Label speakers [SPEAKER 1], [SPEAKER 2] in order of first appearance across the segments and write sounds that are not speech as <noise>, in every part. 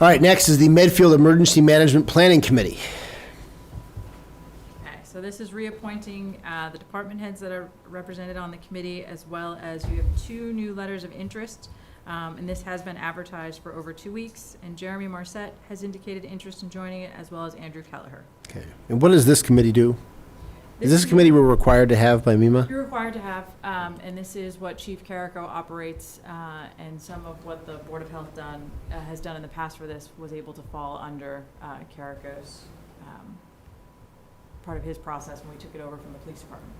[SPEAKER 1] All right, next is the Medfield Emergency Management Planning Committee.
[SPEAKER 2] Okay, so this is reappointing uh, the department heads that are represented on the committee, as well as you have two new letters of interest. um, And this has been advertised for over two weeks, and Jeremy Marset has indicated interest in joining it, as well as Andrew Kelleher.
[SPEAKER 1] Okay. And what does this committee do? Is this a committee we're required to have by MEMA?
[SPEAKER 2] You're required to have, um, and this is what Chief Carrico operates, uh, and some of what the Board of Health done, uh, has done in the past for this was able to fall under, uh, Carrico's, um, part of his process when we took it over from the police department.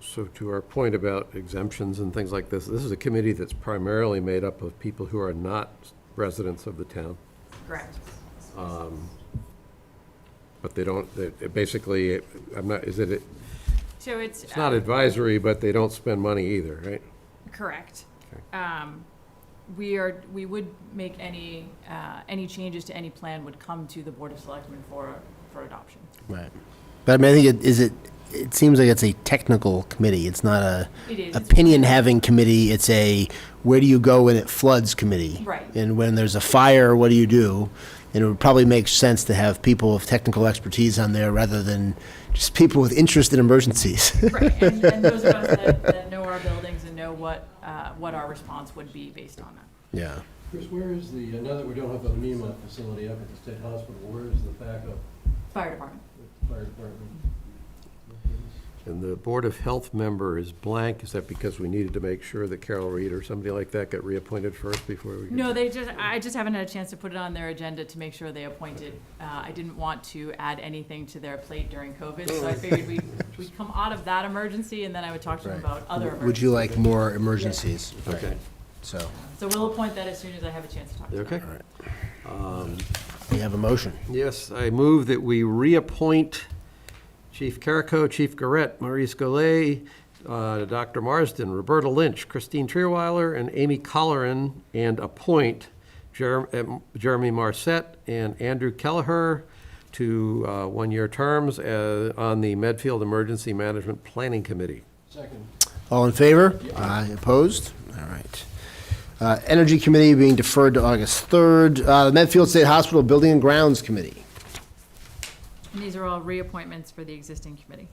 [SPEAKER 3] So to our point about exemptions and things like this, this is a committee that's primarily made up of people who are not residents of the town,
[SPEAKER 2] Correct.
[SPEAKER 3] but they don't, they- it basically, I'm not, is it,
[SPEAKER 2] So it's. uh,
[SPEAKER 3] it's not advisory, but they don't spend money either, right?
[SPEAKER 2] Correct. Um, We are, we would make any, uh, any changes to any plan would come to the Board of Selectmen for, for adoption.
[SPEAKER 1] Right. But I mean, I think it, is it, it seems like it's a technical committee. It's not a
[SPEAKER 2] It is.
[SPEAKER 1] opinion-having committee. It's a where do you go when it floods committee?
[SPEAKER 2] Right.
[SPEAKER 1] And when there's a fire, what do you do? And it would probably make sense to have people with technical expertise on there rather than just people with interest in emergencies. <laughs>
[SPEAKER 2] Right, and, and those of us that, that know our buildings and know what, uh, what our response would be based on that.
[SPEAKER 1] Yeah.
[SPEAKER 4] Chris, where is the, uh, now that we don't have a MEMA facility up at the state hospital, where is the backup
[SPEAKER 2] Fire department.
[SPEAKER 4] fire department?
[SPEAKER 3] And the Board of Health member is blank, is that because we needed to make sure that Carol Reed or somebody like that got reappointed first before we? could-
[SPEAKER 2] No, they just, I just haven't had a chance to put it on their agenda to make sure they appointed. Uh, I didn't want to add anything to their plate during COVID, so I figured we'd, we'd come out of that emergency and then I would talk to them about other emergencies.
[SPEAKER 1] Would you like more emergencies?
[SPEAKER 3] Okay,
[SPEAKER 1] So,
[SPEAKER 2] So we'll appoint that as soon as I have a chance to talk to them.
[SPEAKER 3] okay.
[SPEAKER 1] we have a motion.
[SPEAKER 3] Yes, I move that we reappoint Chief Carrico, Chief Garrett, Maurice Golay, uh, Dr. Marsden, Roberta Lynch, Christine Trierweiler, and Amy Colleran, and appoint Jer- um, Jeremy Marset and Andrew Kelleher to uh, one-year terms uh, on the Medfield Emergency Management Planning Committee.
[SPEAKER 4] Second,
[SPEAKER 1] All in favor? Aye. Opposed? All right. Uh, Energy Committee being deferred to August 3rd. Uh, The Medfield State Hospital Building and Grounds Committee.
[SPEAKER 2] And these are all reappointments for the existing committee.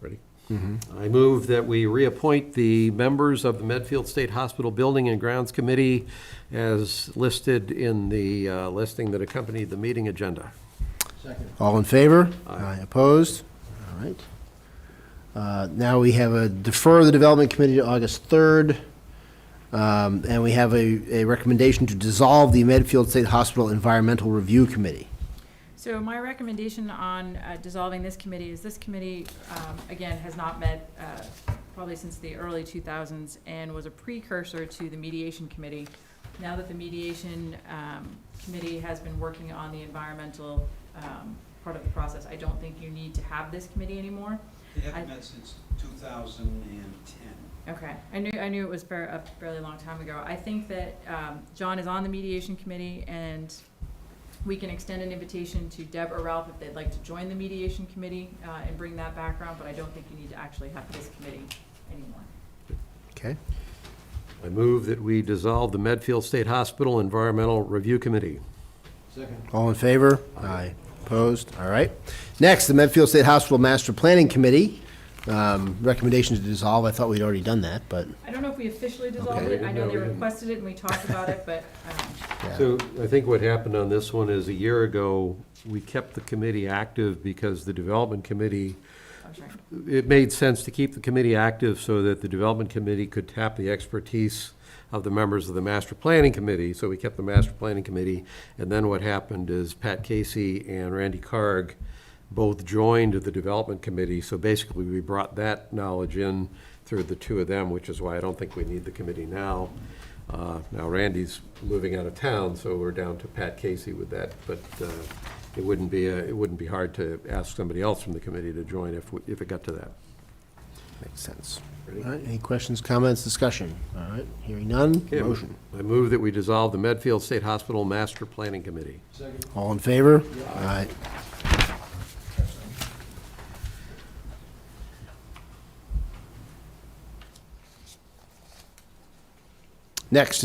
[SPEAKER 3] Ready? Mm-hmm. I move that we reappoint the members of the Medfield State Hospital Building and Grounds Committee as listed in the uh, listing that accompanied the meeting agenda.
[SPEAKER 4] second.
[SPEAKER 1] All in favor? Aye. Opposed? All right. Uh, Now we have a defer the Development Committee to August 3rd. Um, And we have a a recommendation to dissolve the Medfield State Hospital Environmental Review Committee.
[SPEAKER 2] So my recommendation on uh, dissolving this committee is this committee, um, again, has not met uh, probably since the early 2000s and was a precursor to the mediation committee. Now that the mediation um, committee has been working on the environmental um, part of the process, I don't think you need to have this committee anymore.
[SPEAKER 5] They
[SPEAKER 2] I-
[SPEAKER 5] haven't met since 2010.
[SPEAKER 2] Okay, I knew, I knew it was fair, a fairly long time ago. I think that, um, John is on the mediation committee and we can extend an invitation to Deb or Ralph if they'd like to join the mediation committee, uh, and bring that background, but I don't think you need to actually have this committee anymore.
[SPEAKER 1] Okay?
[SPEAKER 3] I move that we dissolve the Medfield State Hospital Environmental Review Committee.
[SPEAKER 4] Second,
[SPEAKER 1] All in favor? Aye. Opposed? All right. Next, the Medfield State Hospital Master Planning Committee. Um, Recommendation to dissolve. I thought we'd already done that, but
[SPEAKER 2] I don't know if we officially dissolved
[SPEAKER 3] Okay.
[SPEAKER 2] it. I know they
[SPEAKER 3] No, we didn't.
[SPEAKER 2] requested it and we talked about it, but, um,
[SPEAKER 1] Yeah.
[SPEAKER 3] So I think what happened on this one is a year ago, we kept the committee active because the Development Committee
[SPEAKER 2] I'm sorry.
[SPEAKER 3] it made sense to keep the committee active so that the development committee could tap the expertise of the members of the master planning committee, so we kept the master planning committee. And then what happened is Pat Casey and Randy Carg both joined the development committee, so basically we brought that knowledge in through the two of them, which is why I don't think we need the committee now. Uh, Now Randy's moving out of town, so we're down to Pat Casey with that, but uh, it wouldn't be, uh, it wouldn't be hard to ask somebody else from the committee to join if, we- if it got to that.
[SPEAKER 1] makes sense.
[SPEAKER 3] Ready?
[SPEAKER 1] All right, any questions, comments, discussion? All right, hearing none,
[SPEAKER 3] Okay,
[SPEAKER 1] motion.
[SPEAKER 3] I move that we dissolve the Medfield State Hospital Master Planning Committee.
[SPEAKER 4] second,
[SPEAKER 1] All in favor? Aye. Next